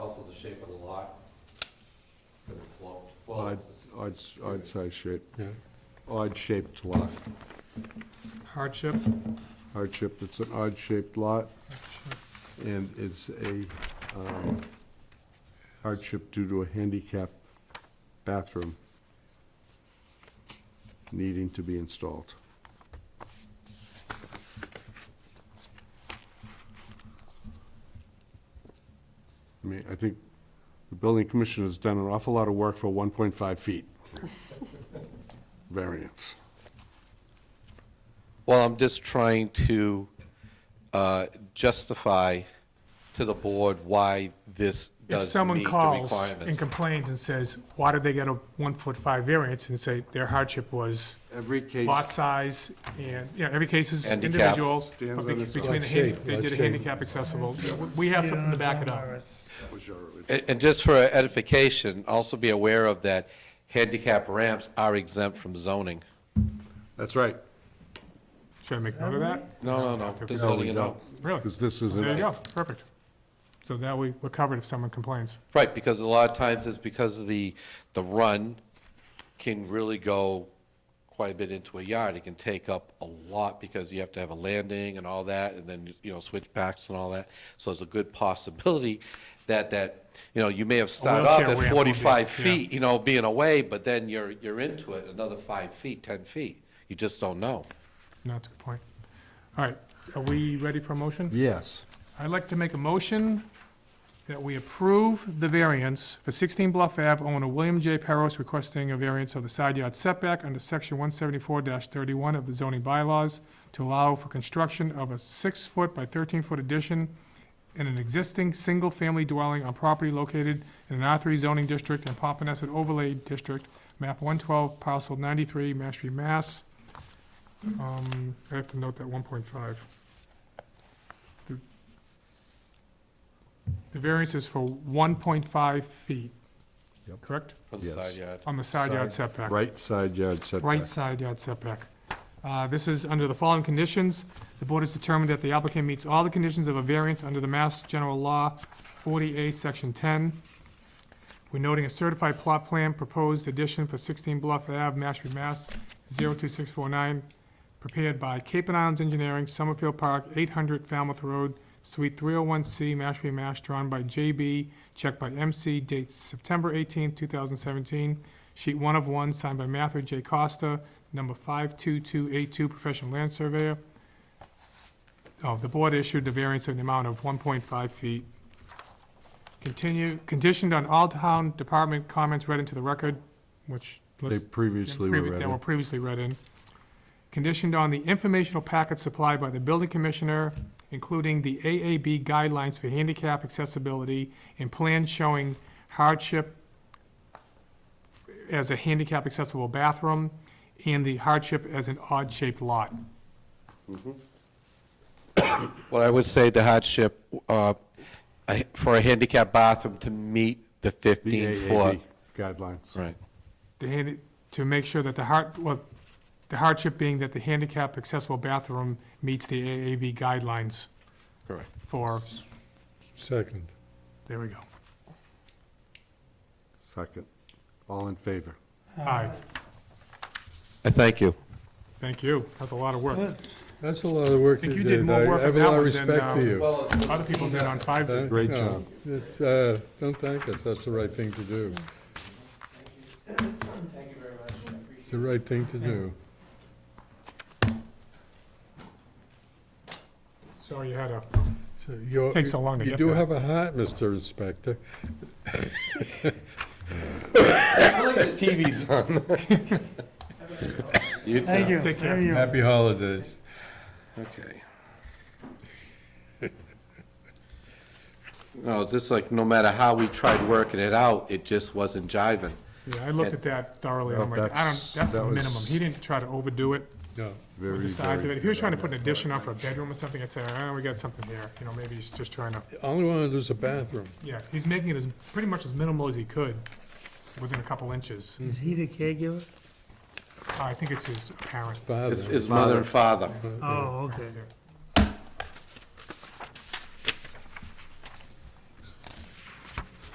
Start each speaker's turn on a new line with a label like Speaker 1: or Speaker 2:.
Speaker 1: also the shape of the lot, because it's sloped. Well,
Speaker 2: Odd,
Speaker 1: it's,
Speaker 2: odd, odd size shape,
Speaker 3: Yeah.
Speaker 2: odd shaped lot.
Speaker 3: Hardship,
Speaker 2: Hardship, it's an odd shaped lot
Speaker 3: hardship,
Speaker 2: and it's a um, hardship due to a handicap bathroom needing to be installed. I mean, I think the building commissioner has done an awful lot of work for 1.5 feet variance.
Speaker 1: Well, I'm just trying to uh, justify to the board why this
Speaker 3: if
Speaker 1: does
Speaker 3: someone
Speaker 1: meet the
Speaker 3: calls and
Speaker 1: requirements.
Speaker 3: complains and says, why did they get a one foot five variance, and say their hardship was
Speaker 2: Every case.
Speaker 3: lot size, and, you know, every case is
Speaker 1: Handicap.
Speaker 3: individual,
Speaker 2: Stands
Speaker 3: but
Speaker 2: on
Speaker 3: be-
Speaker 2: its own.
Speaker 3: between the, hand- they did a handicap accessible, we have something to back it up.
Speaker 2: Was your original.
Speaker 1: And and just for edification, also be aware of that handicap ramps are exempt from zoning.
Speaker 2: That's right.
Speaker 3: Should I make note of that?
Speaker 1: No, no, no, just letting you know.
Speaker 3: Really?
Speaker 2: Because this is, an-
Speaker 3: There you go, perfect. So that we, we're covered if someone complains.
Speaker 1: Right, because a lot of times it's because of the, the run can really go quite a bit into a yard. It can take up a lot because you have to have a landing and all that, and then, you know, switchbacks and all that. So it's a good possibility that, that, you know, you may have started off
Speaker 3: wheelchair
Speaker 1: at
Speaker 3: ramp would be-
Speaker 1: forty-five
Speaker 3: yeah.
Speaker 1: feet, you know, being away, but then you're, you're into it another five feet, ten feet. You just don't know.
Speaker 3: No, that's a good point. All right, are we ready for a motion?
Speaker 2: yes.
Speaker 3: I'd like to make a motion that we approve the variance for 16 Bluff Ave, owner William J. Peros requesting a variance of the side yard setback under section 174-31 of the zoning bylaws to allow for construction of a six-foot by 13-foot addition in an existing single-family dwelling on property located in an R3 zoning district and Pompanesett overlay district, map 112, parcel 93, Mashpee, Mass. Um, I have to note that 1.5. The variance is for 1.5 feet,
Speaker 2: Yep.
Speaker 3: correct?
Speaker 1: on the
Speaker 2: Yes.
Speaker 1: side yard.
Speaker 3: On the side yard setback.
Speaker 2: Right side yard
Speaker 3: Right
Speaker 2: setback.
Speaker 3: side yard setback. Uh, This is under the following conditions. The board has determined that the applicant meets all the conditions of a variance under the Mass General Law 40A, Section 10. We're noting a certified plot plan, proposed addition for 16 Bluff Ave, Mashpee, Mass. 02649, prepared by Cape and Islands Engineering, Summerfield Park, 800 Falmouth Road, Suite 301C, Mashpee, Mass. Drawn by JB, checked by MC, date September 18, 2017. Sheet 1 of 1, signed by Mather J. Costa, number 52282, professional land surveyor. Oh, the board issued the variance in the amount of 1.5 feet. Continue, conditioned on all town department comments read into the record, which
Speaker 2: They
Speaker 3: lists
Speaker 2: previously were
Speaker 3: previ-
Speaker 2: ready.
Speaker 3: That were previously read in. Conditioned on the informational packet supplied by the building commissioner, including the AAB guidelines for handicap accessibility and plans showing hardship as a handicap accessible bathroom and the hardship as an odd-shaped lot.
Speaker 1: Well, I would say the hardship, uh, I- for a handicap bathroom to meet the
Speaker 2: The
Speaker 1: 15 foot.
Speaker 2: AAB guidelines.
Speaker 1: Right.
Speaker 3: The handi- to make sure that the hard, well, the hardship being that the handicap accessible bathroom meets the AAB guidelines
Speaker 1: Correct.
Speaker 3: for,
Speaker 4: Second.
Speaker 3: there we go.
Speaker 2: Second. All in favor?
Speaker 3: Aye,
Speaker 1: I thank you.
Speaker 3: thank you, that's a lot of work.
Speaker 4: That's a lot of work
Speaker 3: Think
Speaker 4: you
Speaker 3: you did
Speaker 4: did.
Speaker 3: more work
Speaker 4: I I have
Speaker 3: on
Speaker 4: a
Speaker 3: that
Speaker 4: lot of
Speaker 3: one than,
Speaker 4: respect
Speaker 3: um,
Speaker 4: for you.
Speaker 3: Other people did on five.
Speaker 4: Uh,
Speaker 2: Great
Speaker 4: no,
Speaker 2: job.
Speaker 4: It's, uh, don't thank us, that's the right thing to do. It's the right thing to do.
Speaker 3: Sorry you had a,
Speaker 4: So you're-
Speaker 3: Takes so long to
Speaker 4: you
Speaker 3: get
Speaker 4: do
Speaker 3: there.
Speaker 4: have a heart, Mr. Inspector.
Speaker 1: TV's on. You too.
Speaker 5: Thank you.
Speaker 3: Take care.
Speaker 5: Thank you.
Speaker 4: Happy holidays.
Speaker 1: Okay. No, it's just like, no matter how we tried working it out, it just wasn't jiving.
Speaker 3: yeah, I looked at that thoroughly, I'm like, I don't,
Speaker 2: That's-
Speaker 3: that's the
Speaker 2: that was-
Speaker 3: minimum, he didn't try to overdo it
Speaker 4: No.
Speaker 3: with
Speaker 2: Very,
Speaker 3: the size of it.
Speaker 2: very.
Speaker 3: If he was trying to put an addition on for a bedroom or something, I'd say, ah, we got something there, you know, maybe he's just trying to,
Speaker 4: All I wanted was a bathroom.
Speaker 3: yeah, he's making it as, pretty much as minimal as he could, within a couple inches.
Speaker 5: Is he the caregiver?
Speaker 3: I think it's his parent.
Speaker 4: Father.
Speaker 1: His- His mother and father.
Speaker 5: Oh, okay.
Speaker 3: Yeah.